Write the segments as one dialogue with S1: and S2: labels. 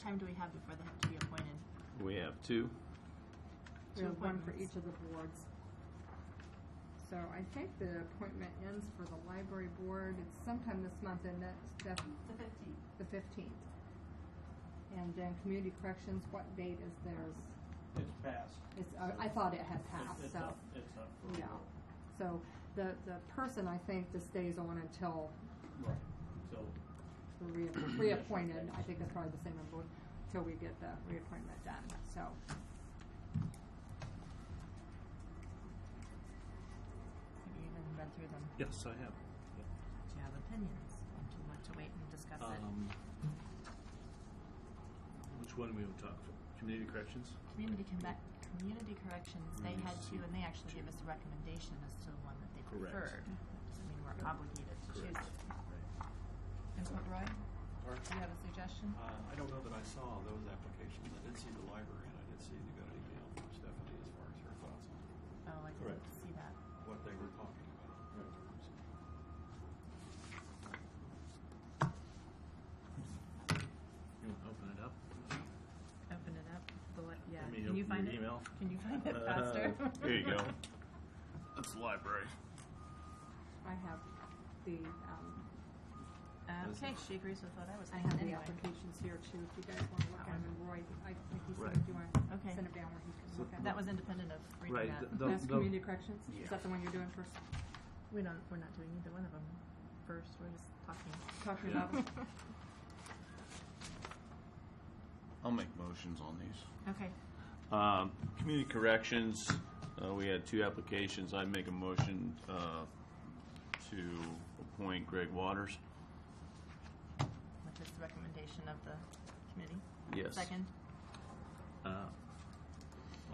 S1: time do we have before they have to be appointed?
S2: We have two.
S3: We
S1: Two
S3: have one for
S1: appointments.
S3: each of the boards. So I think the appointment ends for the library board, it's sometime this month, and that's def-
S4: The fifteenth.
S3: the fifteenth. And then community corrections, what date is theirs?
S5: It's passed.
S3: It's, uh, I- I thought it had passed,
S5: It's- It's
S3: so.
S5: up, it's up. for
S3: Yeah.
S5: renewal.
S3: So the, the person, I think, just stays on until
S5: Right, so,
S3: the reapp- reappointed, I think that's probably the same number, until we get the reappointment done, so.
S1: Have you even read through them?
S2: Yes, I have.
S1: Do you have opinions? Do you want to wait and discuss it?
S2: Um, which one we would talk for? Community corrections?
S1: Community combat, community corrections, they had
S2: Yes.
S1: two, and they actually gave us a recommendation as to the one that they
S2: Correct.
S1: preferred. Doesn't mean we're obligated to choose
S2: Correct.
S1: it.
S6: And McBride, do you have a suggestion?
S7: Uh, I don't know that I saw those applications. I did see the library, and I did see you got an email from Stephanie as far as her thoughts on
S1: Oh, I didn't
S2: Correct.
S1: see that.
S7: what they were talking about.
S2: You want to open it up?
S1: Open it up, the, li- yeah,
S2: Let me
S1: can you
S2: open
S1: find
S2: your
S1: it?
S2: email.
S1: Can you find it
S2: Uh,
S1: faster?
S2: There you go. That's the library.
S3: I have the, um,
S1: Uh, Okay, she agrees with what I was
S3: I
S1: thinking
S3: have the
S1: anyway.
S3: applications here too, if you guys want to look at them, and Roy, I think he said,
S2: Right.
S3: do you want to
S1: Okay.
S3: send it down where he can
S2: So
S3: look at it?
S1: That was independent of
S2: Right,
S1: reading that.
S2: th- th-
S3: That's
S2: the-
S3: community corrections,
S2: Yeah.
S3: is that the one you're doing first,
S1: We don't, we're not doing either one of them first, we're just talking.
S3: talking
S2: Yeah.
S3: about? it?
S8: I'll make motions on these.
S1: Okay,
S2: Um, Community corrections, uh, we had two applications. I make a motion uh, to appoint Greg Waters.
S1: with this recommendation of the committee.
S2: Yes.
S1: Second,
S2: Uh,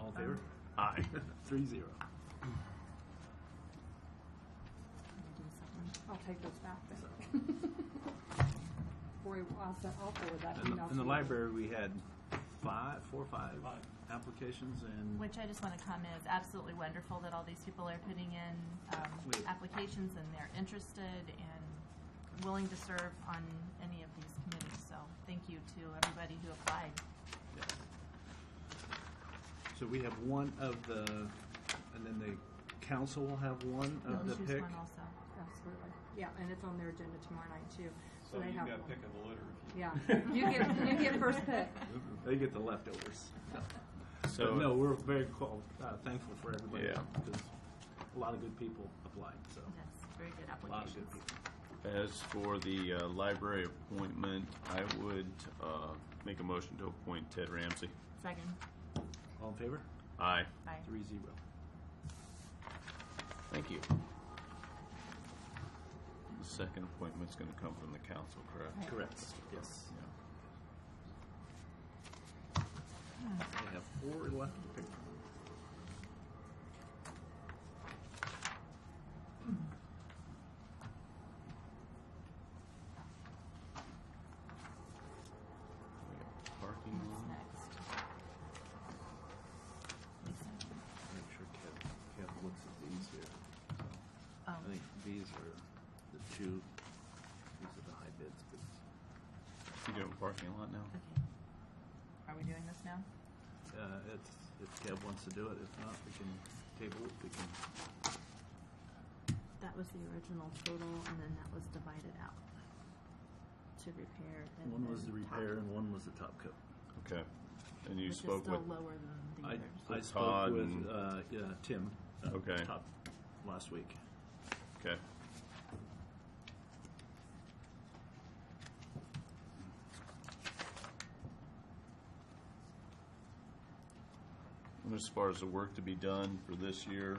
S2: All in
S1: favor?
S2: Aye. Three zero.
S1: Can you do the second?
S3: I'll take those back then. Roy, I'll, send- I'll forward that
S2: In the,
S3: email to
S2: in the
S3: you.
S2: library, we had five, four or five applications and
S1: Which I just want to comment is absolutely wonderful that all these people are putting in um,
S2: Wait.
S1: applications and they're interested and willing to serve on any of these committees. So thank you to everybody who applied.
S2: So we have one of the, and then the council will have one
S1: You'll
S2: of Uh, the
S1: choose
S2: pick.
S1: one also.
S3: Absolutely, yeah, and it's on their agenda tomorrow night too, so
S7: So
S3: they
S7: you've
S3: have
S7: got
S3: one.
S7: pick of the litter. if you-
S3: Yeah, you get, you get first pick.
S2: They Oh, get the leftovers.
S8: So
S2: But no, we're very qual- uh, thankful for everybody.
S8: Yeah.
S2: Because a lot of good people applied, so,
S1: Yes, very good
S2: a lot of good
S1: applications.
S2: people.
S8: as for the uh, library appointment, I would uh, make a motion to appoint Ted Ramsey.
S1: Second,
S2: All in favor?
S8: Aye.
S1: bye.
S2: Three zero.
S8: Thank you. The second appointment's going to come from the council, correct?
S2: Correct, yes.
S8: Yeah.
S2: We have four left to pick from.
S8: We got Parking
S1: Who's
S8: lot.
S1: next? Lisa?
S6: Make sure Kev, Kev looks at these here.
S1: Oh,
S6: I think these are the two, these are the high bids, but
S8: You doing parking lot now?
S1: okay. Are we doing this now?
S6: uh, it's, if Kev wants to do it, if not, we can table it, we can,
S1: That was the original total, and then that was divided out to repair. and
S6: one was the
S1: then top,
S6: repair and one was the top coat.
S8: Okay. And you
S1: Which is
S8: spoke with,
S1: still lower than the
S6: I,
S1: others.
S6: I
S8: With
S6: spoke
S8: Todd
S6: with,
S8: and-
S6: uh, yeah, Tim. uh,
S8: Okay.
S6: Top, last week.
S8: okay. And as far as the work to be done for this year,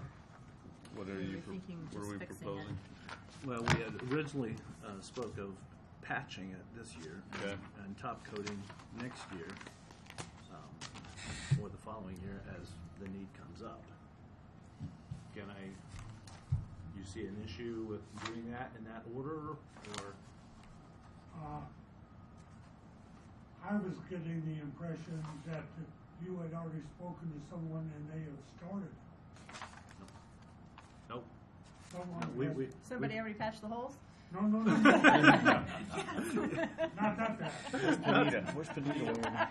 S8: what are
S1: We
S8: you,
S1: were
S8: pro-
S1: thinking
S8: what
S1: just
S8: are we
S1: fixing it.
S8: proposing?
S6: Well, we had originally uh, spoke of patching it this year
S8: Okay.
S6: and top coating next year um, or the following year as the need comes up.
S2: Can I, you see an issue with doing that in that order, or?
S9: Uh, I was getting the impression that you had already spoken to someone and they have started.
S2: Nope.
S9: Someone
S2: No, we,
S9: has-
S2: we.
S1: Somebody
S2: we-
S1: already patched the holes? No, no, no, no. Not that bad.
S9: Anita.
S8: Where's Benita?